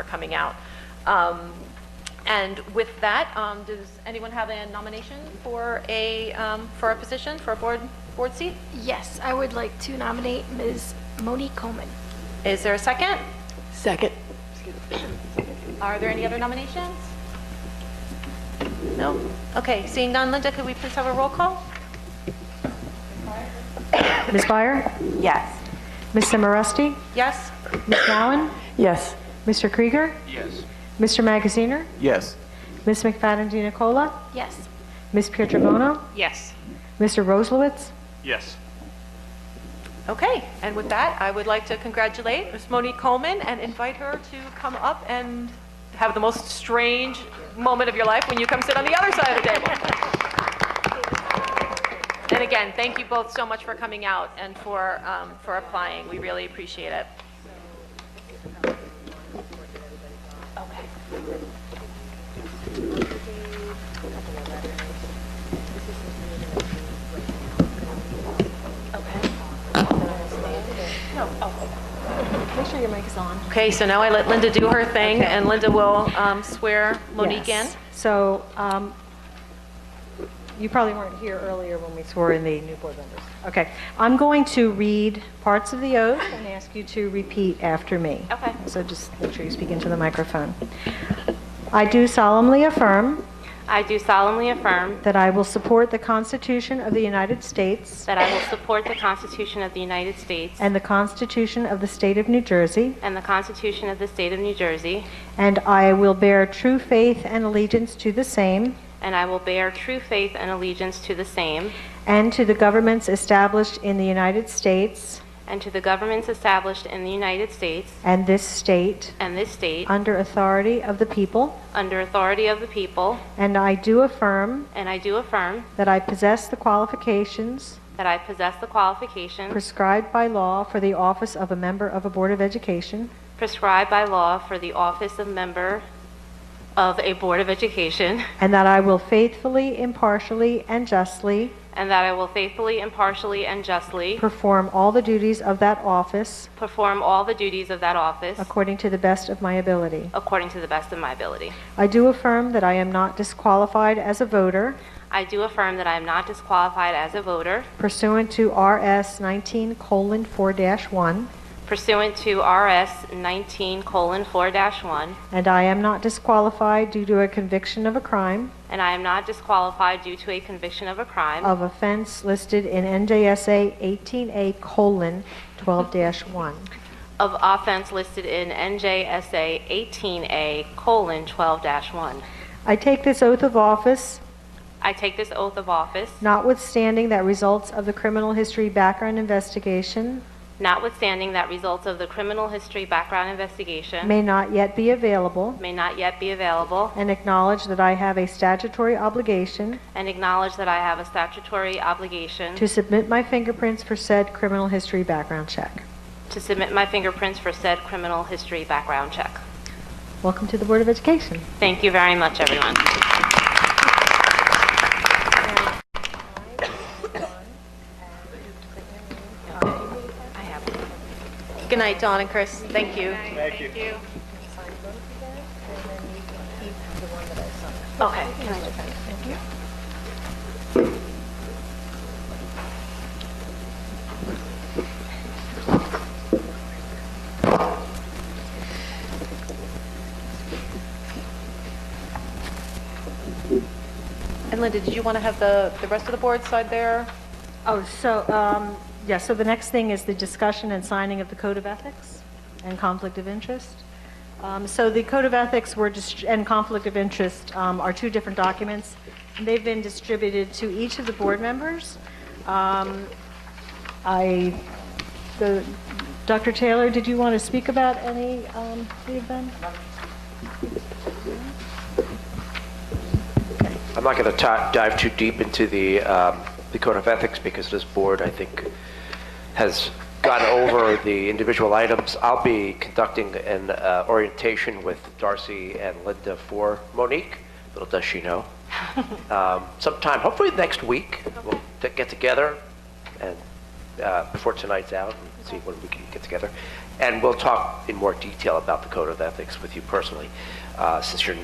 are coming out. Um, And with that, um, does anyone have a nomination for a, um, for a position, for a board, board seat? Yes, I would like to nominate Ms. Monique Coleman. Is there a second? Second. Are there any other nominations? No? Okay, seeing none, Linda, could we please have a roll call? Ms. Byer? Yes. Ms. Simorusti? Yes? Ms. Gowan? Yes. Mr. Krieger? Yes. Mr. Magaziner? Yes. Ms. McFadden DiNicola? Yes. Ms. Pietrobono? Yes. Mr. Roslowitz? Yes. Okay, and with that, I would like to congratulate Ms. Monique Coleman and invite her to come up and have the most strange moment of your life when you come sit on the other side of the table. And again, thank you both so much for coming out and for, um, for applying. We really appreciate it. Okay, so now I let Linda do her thing, and Linda will um, swear Monique in. Yes. So um, you probably weren't here earlier when we swore in the new board members. Okay. I'm going to read parts of the oath and ask you to repeat after me. Okay. So just make sure you speak into the microphone. I do solemnly affirm I do solemnly affirm that I will support the Constitution of the United States that I will support the Constitution of the United States and the Constitution of the State of New Jersey, and the Constitution of the State of New Jersey, and I will bear true faith and allegiance to the same and I will bear true faith and allegiance to the same and to the governments established in the United States and to the governments established in the United States and this state and this state under authority of the people, under authority of the people, and I do affirm and I do affirm that I possess the qualifications that I possess the qualifications prescribed by law for the office of a member of a Board of Education, prescribed by law for the office of member of a Board of Education, and that I will faithfully, impartially, and justly and that I will faithfully, impartially, and justly perform all the duties of that office perform all the duties of that office according to the best of my ability. according to the best of my ability. I do affirm that I am not disqualified as a voter I do affirm that I am not disqualified as a voter pursuant to RS 19:4-1, pursuant to RS 19:4-1, and I am not disqualified due to a conviction of a crime and I am not disqualified due to a conviction of a crime of offense listed in NJSA 18A:12-1. of offense listed in NJSA 18A:12-1. I take this oath of office I take this oath of office notwithstanding that results of the criminal history background investigation notwithstanding that results of the criminal history background investigation may not yet be available, may not yet be available, and acknowledge that I have a statutory obligation and acknowledge that I have a statutory obligation to submit my fingerprints for said criminal history background check. to submit my fingerprints for said criminal history background check. Welcome to the Board of Education. Thank you very much, everyone. Good night, Dawn and Chris. Thank you. Thank you. Okay. And Linda, did you want to have the, the rest of the board side there? Oh, so, um, yeah, so the next thing is the discussion and signing of the Code of Ethics and Conflict of Interest. Um, So the Code of Ethics were, dist- and Conflict of Interest um, are two different documents. They've been distributed to each of the board members. Um, I, the, Dr. Taylor, did you want to speak about any um, of them? I'm not going to dive too deep into the, um, the code of ethics because this board, I think, has gone over the individual items. I'll be conducting an uh, orientation with Darcy and Linda for Monique. Little does she know. um, sometime, hopefully next week, we'll t- get together and uh, before tonight's out and see when we can get together And we'll talk in more detail about the Code of Ethics with you personally, uh, since you're new